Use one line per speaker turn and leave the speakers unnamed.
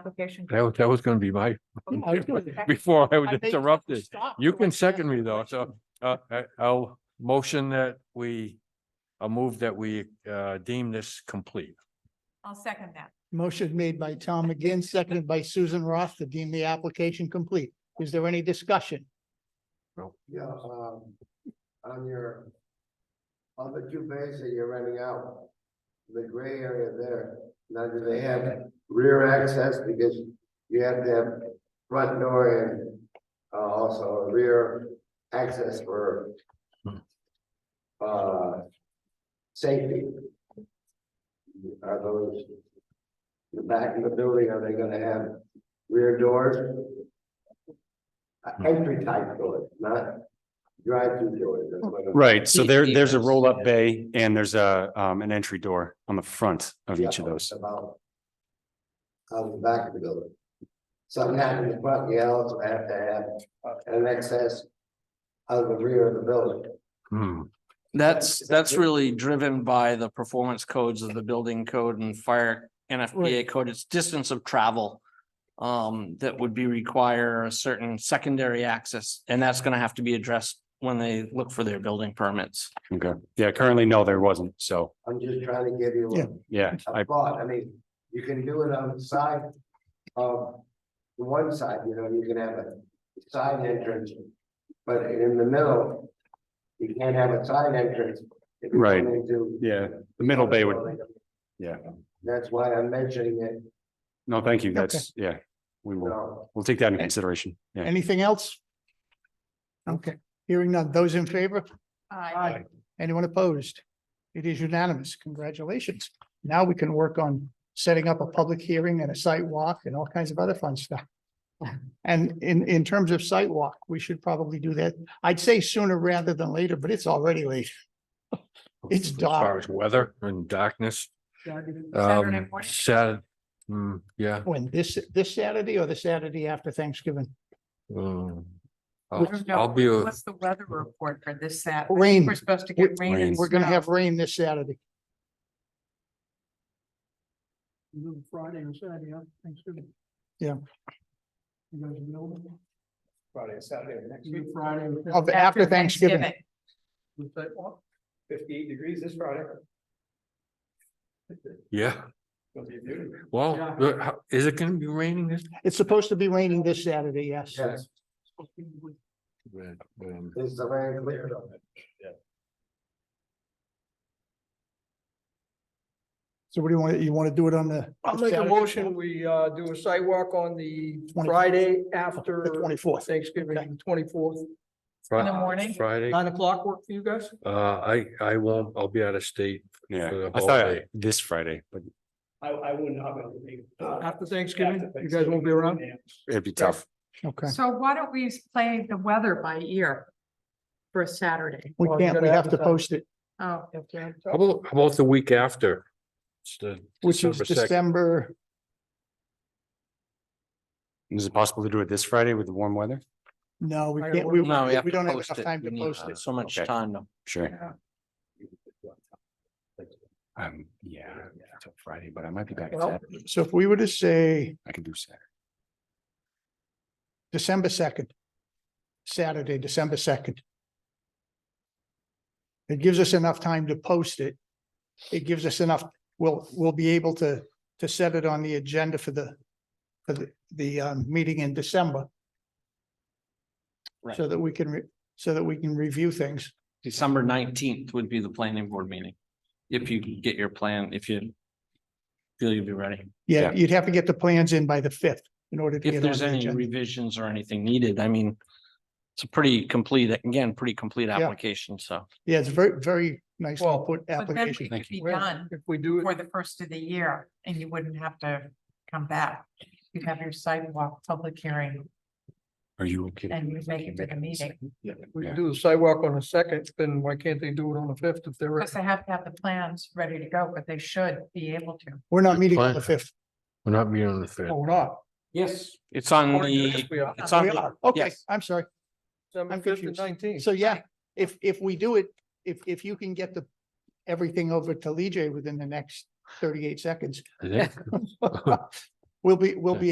application.
That was, that was gonna be my,
I was gonna-
before I was
I think-
interrupted.
Stop.
You can second me though, so, uh, I, I'll motion that we, a move that we, uh, deem this complete.
I'll second that.
Motion made by Tom McGinn, seconded by Susan Roth to deem the application complete. Is there any discussion?
Yeah, um, on your other two bays that you're renting out, the gray area there, now do they have rear access because you have to have front door and uh, also a rear access for uh, safety? Are those the back of the building, are they gonna have rear doors? Uh, Entry type doors, not drive-through doors. that's what I'm-
Right, so there,
Yeah.
there's a roll-up bay and there's a, um, an entry door on the front of each of
Yeah,
those.
About. On the back of the building. Something happened in the front, you also have to have an access out of the rear of the building.
Hmm,
That's, that's really driven by the performance codes of the building code and fire NFPA code. It's distance of travel. Um, that would be require a certain secondary access, and that's gonna have to be addressed when they look for their building permits.
Okay, yeah, currently, no, there wasn't, so,
I'm just trying to give you
Yeah.
a-
yeah, I,
a thought, I mean, you can do it on the side. Of the one side, you know, you can have a side entrance, but in the middle. You can't have a side entrance. if you come
Right.
into
yeah, the middle bay would, yeah,
That's why I'm mentioning it,
no, thank you, that's, yeah. We
you
will,
know.
we'll take that into consideration, yeah.
Anything else? Okay, hearing none. Those in favor?
Aye.
Anyone opposed? It is unanimous. Congratulations. Now we can work on setting up a public hearing and a site walk and all kinds of other fun stuff. And in, in terms of site walk, we should probably do that. I'd say sooner rather than later, but it's already late. It's
as far
dark.
as weather and darkness,
Saturday
um,
morning.
Saturday, hmm, yeah.
When this, this Saturday or the Saturday after Thanksgiving?
um,
I
I'll
don't know.
I'll be, a-
What's the weather report for this Sat?
Oh, Rain.
We're supposed to get rain. and
We're gonna
snow.
have rain this Saturday. Friday and Saturday, yeah, Thanksgiving. Yeah. You guys available?
Friday, Saturday, next
Friday. Of, after Thanksgiving,
Fifty-eight degrees this Friday.
yeah,
Gonna be beautiful.
well,
Yeah.
the- how- is it gonna be raining this?
it's supposed to be raining this Saturday, yes.
Yes,
Um,
it's the land clear.
So what do you want, you want to do it on the?
I'll make a motion, we uh do a sidewalk on the
24th.
Friday
The
after
24th. Okay.
Thanksgiving, twenty-fourth,
Fri-
In the morning?
Friday,
nine o'clock work for you guys?
uh, I, I won't, I'll be out of state. for
Yeah,
the
I
whole
thought
day.
this Friday, but
I, I wouldn't, I would.
Uh,
After Thanksgiving, you guys won't be around?
it'd be tough.
Okay,
So why don't we play the weather by ear for Saturday?
we
Well, you
can't, we
gotta
have to
advertise.
post it,
Oh,
How about, how about the week after? It's the
which is
December second.
December,
Is it possible to do it this Friday with the warm weather?
no, we
All right,
can't,
we're-
we,
No, we have
we
to
don't have
post
enough
it.
time
We
to
need uh,
post it.
So much
Okay.
time. to-
Sure. Um, yeah, till Friday, but I might be back.
Well,
Saturday.
So if we were to say
I can do Saturday.
December second, Saturday, December second. It gives us enough time to post it. It gives us enough, we'll, we'll be able to, to set it on the agenda for the, for the, the, um, meeting in December.
Right.
So that we can, re- so that we can review things.
December nineteenth would be the planning board meeting. If you get your plan, if you feel you'll be ready.
Yeah,
Yeah.
you'd have to get the plans in by the fifth in order to
If
get on
there's
the
any
agenda.
revisions or anything needed, I mean, it's a pretty complete, again, pretty complete application, so.
Yeah, it's very, very nice to
Well,
put
But then
application.
it could be
Well,
done
If we do
for
it,
the first of the year and you wouldn't have to come back. You'd have your sidewalk public hearing
Are you okay?
and you make it to the meeting.
if we
Yeah.
can do the sidewalk on the second, then why can't they do it on the fifth if they're,
Because they have to have the plans ready to go, but they should be able to.
We're not meeting on
Fine.
the fifth.
We're not meeting on the fifth.
oh, we're not?
Yes. It's on
Or yes,
the,
We are,
it's on
We
the
are. Okay,
yes.
I'm sorry.
December
I'm
fifth and
confused.
nineteenth.
So yeah, if, if we do it, if, if you can get the, everything over to Lee within the next thirty-eight seconds.
I think.
We'll be, we'll be